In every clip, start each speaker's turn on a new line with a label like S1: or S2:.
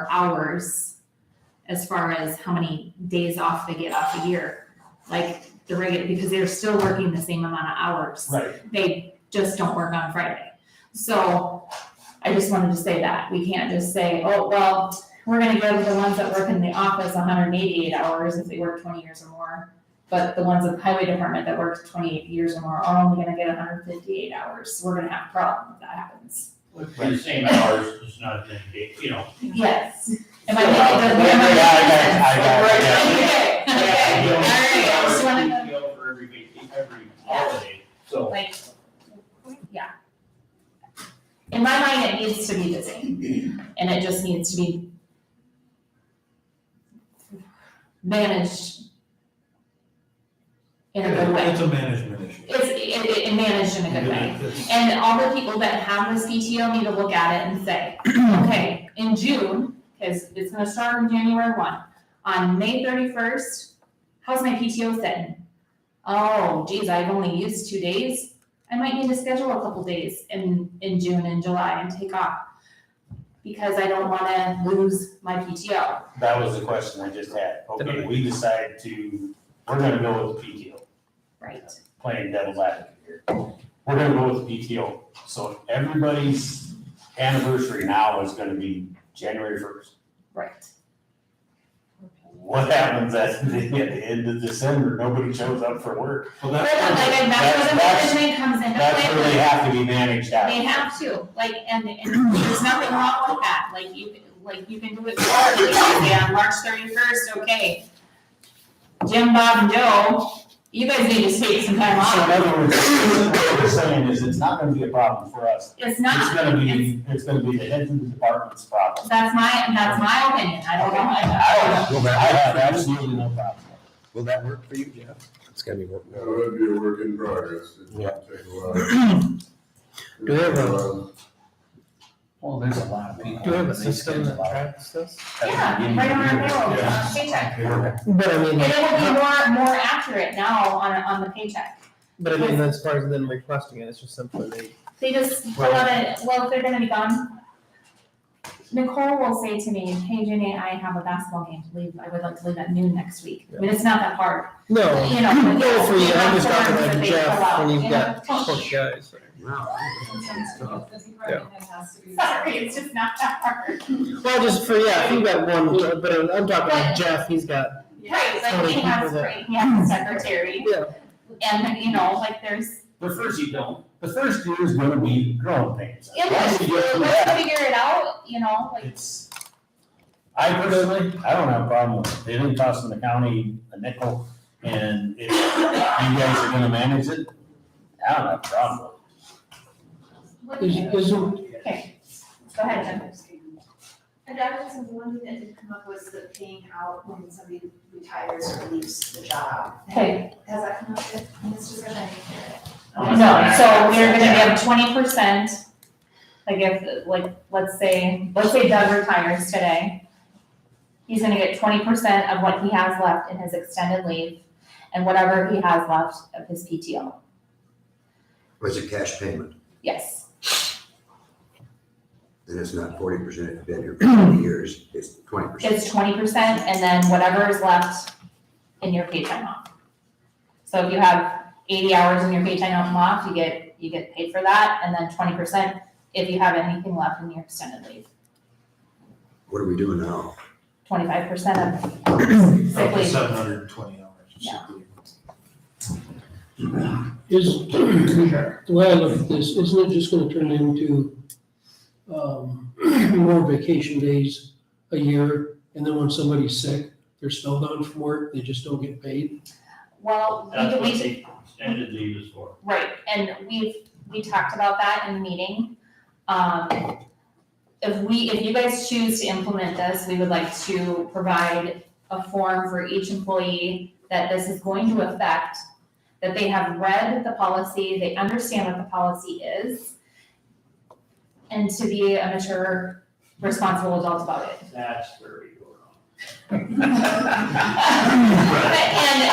S1: for hours as far as how many days off they get off a year. Like the regular, because they're still working the same amount of hours.
S2: Right,
S1: They just don't work on Friday. So I just wanted to say that. We can't just say, oh, well, we're gonna give the ones that work in the office hundred and eighty-eight hours if they work twenty years or more. But the ones in the highway department that worked twenty-eight years or more are only gonna get hundred and fifty-eight hours. We're gonna have a problem if that happens.
S3: With the same hours, it's not that big, you know.
S1: Yes. Am I making, am I making
S2: Yeah, I
S1: sense?
S2: got it, I got it,
S1: Okay,
S3: yeah.
S1: okay, all right, I just wanted to-
S3: Every PTO for every vac- every holiday, so.
S1: like, yeah. In my mind, it needs to be the same, and it just needs to be managed in a good way.
S4: It's a management issue.
S1: It's, it, it- it managed in a good way. And all the people that have this PTO need to look at it and say, okay, in June, because it's gonna start on January one, on May thirty-first, how's my PTO sitting? Oh geez, I've only used two days, I might need to schedule a couple days in, in June and July and take off. Because I don't wanna lose my PTO.
S2: that was the question I just had. Okay, we decide to, we're gonna go with the PTO,
S1: Right.
S2: playing devil's advocate here. We're gonna go with the PTO. So everybody's anniversary now is gonna be January first.
S1: Right.
S2: What happens at the at the end of December? Nobody shows up for work.
S4: Well,
S1: But like,
S4: that's,
S1: that's where the
S2: That's-
S1: management comes into play.
S2: That's where they have to be managed out.
S1: They have to, like, and, and there's nothing wrong with that, like, you, like, you can do it quarterly, yeah, March thirty-first, okay. Jim, Bob, and Joe, you guys need to take some time
S2: So
S1: off,
S2: in other words, what we're saying is it's not gonna be a problem for us.
S1: it's
S2: It's
S1: not,
S2: gonna be, it's gonna be the head of the department's problem.
S1: that's my, that's my opinion, I don't know, I,
S2: I
S5: Will
S2: I
S5: that,
S2: have absolutely no problem.
S5: will that work for you, Jeff? It's gotta be working.
S6: That would be a work in progress. It
S5: Yeah.
S6: would take a while.
S5: Do they have a-
S6: Um,
S3: Well, there's a lot of
S5: Do you have a system that tracks this?
S1: yeah, right on our payroll, it's on paycheck.
S5: But I
S1: And it will
S5: mean,
S1: be
S5: how-
S1: more, more accurate now on, on the paycheck,
S5: but I mean, as far as them requesting it, it's just simply they.
S1: they just pull out a, well, if they're gonna be gone. Nicole will say to me, hey Jenny, I have a basketball game to leave, I would like to leave at noon next week, I mean, it's not that hard.
S5: No,
S1: you know. but
S5: no, for you, I'm just
S1: that's
S5: talking
S1: the ones that they pull
S5: like Jeff,
S1: out,
S5: when
S1: you
S5: you've
S1: know?
S5: got four guys.
S1: Sorry, it's just not that hard.
S5: Well, just for, yeah, if you've got one, but I'm talking like Jeff, he's got,
S1: Right, like
S5: Totally
S1: he has
S5: people that-
S1: three, he has a secretary,
S5: yeah.
S1: and you know, like there's,
S3: The first you don't,
S2: The first year is gonna be growing pains.
S1: it
S2: Once
S1: is,
S2: you get through
S1: let's
S2: that,
S1: figure it out, you know, like,
S2: It's, I personally, I don't have a problem with it. They didn't cost the county a nickel and if you guys are gonna manage it, I don't have a problem with it.
S1: what do you-
S5: Is, is,
S1: okay, go ahead, Jen.
S7: And that was the one thing that did come up was the paying out when somebody retires or leaves the job.
S1: Okay.
S7: Has that come up yet? It's just gonna
S1: No, so we're gonna give twenty percent, like if, like, let's say, let's say Doug retires today. He's gonna get twenty percent of what he has left in his extended leave and whatever he has left of his PTO,
S8: Was a cash payment,
S1: yes.
S8: and it's not forty percent if you've been here for twenty years, it's twenty percent.
S1: It's twenty percent and then whatever is left in your paid time off. So if you have eighty hours in your paid time off, you get, you get paid for that, and then twenty percent if you have anything left in your extended leave.
S8: What are we doing now?
S1: Twenty-five percent of sick leave.
S4: Seven hundred and twenty hours.
S1: Yeah.
S9: Is, the way I look at this, isn't it just gonna turn into, um, more vacation days a year? And then when somebody's sick, they're spelled down from work, they just don't get paid?
S1: Well,
S3: That's
S1: we,
S3: what
S1: we,
S3: the extended leave is for.
S1: right, and we've, we talked about that in the meeting. Um, if we, if you guys choose to implement this, we would like to provide a form for each employee that this is going to affect, that they have read the policy, they understand what the policy is, and to be a mature, responsible adult about it.
S3: That's where you go wrong.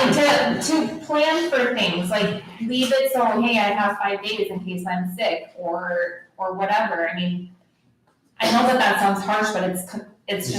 S1: And to, to plan for things, like leave it so, hey, I have five days in case I'm sick or, or whatever, I mean, I know that that sounds harsh, but it's, co- it's just